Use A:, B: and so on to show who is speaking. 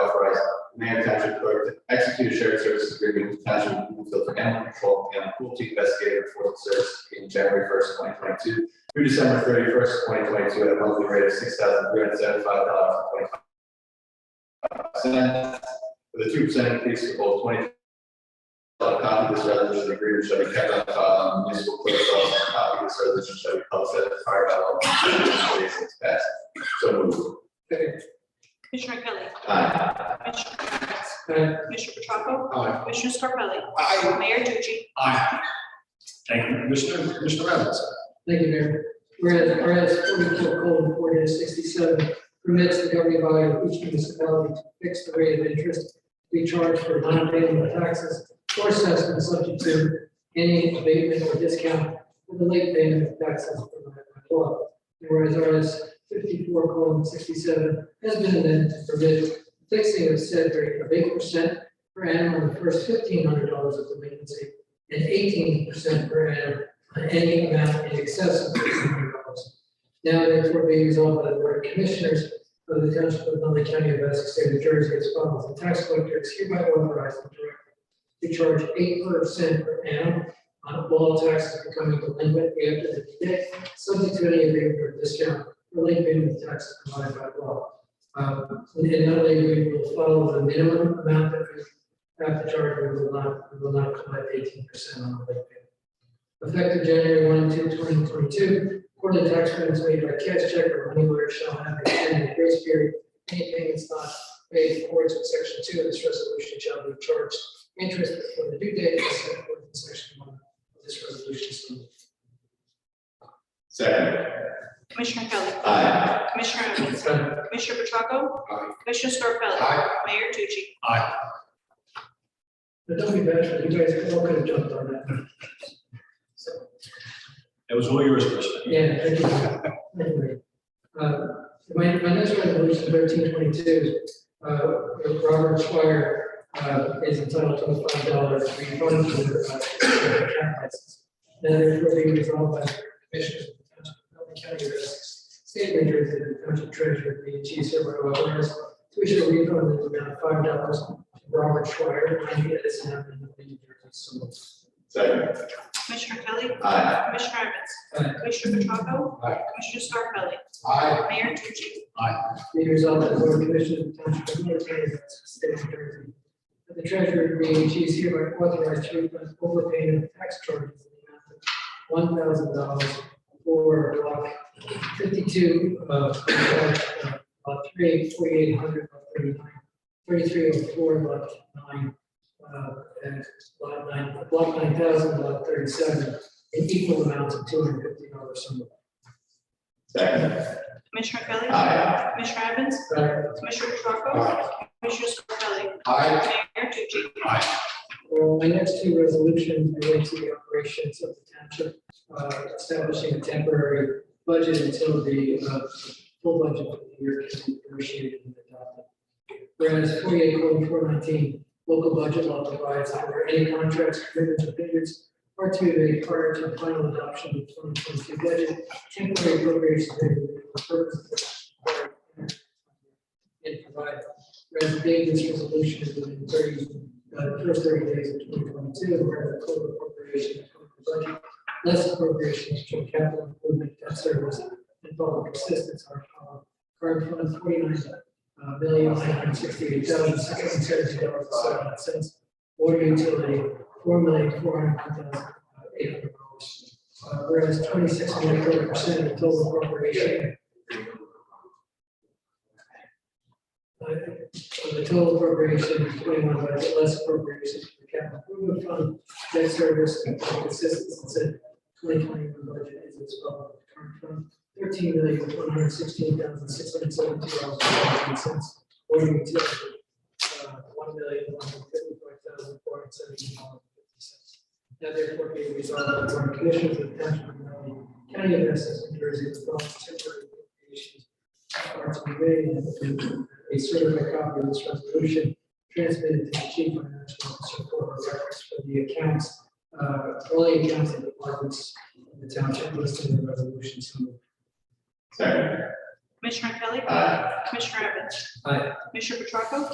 A: Township Clerk to execute a shared services agreement with Township of Bloomfield for animal control and cruelty investigator enforcement service in January first, twenty twenty-two through December thirty-first, twenty twenty-two, at a monthly rate of six thousand three hundred seventy-five dollars and twenty-five cents, with a two percent increase for both twenty a copy of this resolution agreement shall be kept on file in municipal clerk's office. A Copy of this resolution shall be published as a fire by law. It's passed. So moved.
B: Commissioner Kelly.
A: Aye.
B: Commissioner Evans.
C: Aye.
D: Uh,
B: Commissioner Petracco.
C: Aye.
B: Commissioner Scarpelli.
C: Aye.
B: Mayor Tucci.
C: Aye. Ah, Thank you, Commissioner, Commissioner Evans.
D: Thank you, Mayor. Whereas, whereas forty-two colon four dash sixty-seven permits the governing body of each municipality to fix the rate of interest we charge for non-payment of taxes or assessments subject to any abatement or discount for the late payment of taxes provided by law. And Whereas RS fifty-four colon sixty-seven has been amended to permit fixing of said rate of eight percent per annum on the first fifteen hundred dollars of delinquency and eighteen percent per annum on any amount in excess of fifteen hundred dollars. Now therefore be resolved by the Board of Commissioners of the Township of Nutley County of Essex State of New Jersey as follows. The tax collector is hereby authorized and directed to charge eight percent per annum on all taxes becoming delinquent after the date, subject to any agreement or discount relating payment of taxes provided by law. Um, and not only we will follow the minimum amount that we have to charge, we will not, we will not collect eighteen percent on the late payment effective January 1, 2, 2022. Quarterly tax payments made by cash check or money order shall have a ten-day grace period. Any payments not made in accordance with section two of this resolution shall be charged interest before the due date as set forth in section one of this resolution. So moved.
A: Second.
B: Commissioner Kelly.
A: Aye.
B: Commissioner Evans.
C: Aye.
B: Commissioner Petracco.
C: Aye.
B: Commissioner Scarpelli.
C: Aye.
B: Mayor Tucci.
D: But don't be bashful, you guys all could have jumped on that. So.
C: That was all yours, Commissioner.
D: Yeah, thank you. Anyway, uh, My, my next resolution thirteen twenty-two, uh, Robert Schwire, uh, is entitled to a five dollar refund for, uh, cat license. Now therefore be resolved by the Commissioners of the Township of Nutley County of Essex, State of New Jersey, and the Township Treasurer, the chief server of owners, to issue a refund in the amount of five dollars to Robert Schwire, county Edison Avenue, Nutley, New Jersey. So moved.
A: Second.
B: Commissioner Kelly.
A: Aye.
B: Commissioner Evans.
D: Aye.
B: Commissioner Petracco.
C: Aye.
B: Commissioner Scarpelli.
C: Aye.
B: Mayor Tucci.
D: Be resolved that the Board of Commissioners of the Township of Middletown, State of New Jersey, that the treasurer being she is hereby authorized to refund overpayment of tax charges in the amount of one thousand dollars for block fifty-two, uh, lot three, forty-eight hundred, lot thirty-nine, thirty-three oh four, lot nine, uh, and lot nine, block nine thousand, lot thirty-seven, in equal amounts of two hundred fifty dollars.
A: Second.
B: Commissioner Kelly.
A: Aye.
B: Commissioner Evans. Commissioner Petracco. Commissioner Scarpelli. Mayor Tucci.
D: Well, my next two resolutions relate to the operations of the township, uh, establishing a temporary budget until the, uh, full budget for the year can be negotiated and adopted. Whereas forty-eight colon four nineteen, local budget law provides for any contracts, agreements, or payments are to be made prior to the final adoption of twenty twenty-two budget, temporary appropriations may be made for purposes of- and provide Whereas the date of this resolution is within thirty, uh, first thirty days of twenty twenty-two, where the total appropriation of the budget, less appropriations to capital improvement, debt service, and public assistance are followed. Current fund forty-nine, uh, million, nine hundred sixty-eight thousand, six hundred seventy dollars, seven cents. Water utility, four million, four hundred one thousand, uh, eight hundred dollars. Uh, whereas twenty-six point four percent of the total appropriation Uh, So the total appropriation is twenty-one budget, less appropriation for capital improvement fund, debt service, and assistance, and said twenty twenty-one budget is as well. Current fund, thirteen million, one hundred sixteen thousand, six hundred seventy dollars and seventy cents. Water utility, uh, one million, one hundred fifty-four thousand, four hundred seventy dollars and fifty cents. Now therefore be it resolved by the Board of Commissioners of the Township of Nutley County of Essex, New Jersey, the following temporary appropriations are to be made and a certified copy of this resolution transmitted to the chief financial officer for reference for the accounts, uh, all the accounts and departments in the township listed in the resolution. So moved.
A: Second.
B: Commissioner Kelly.
A: Aye.
B: Commissioner Evans.
D: Aye.
B: Commissioner Petracco.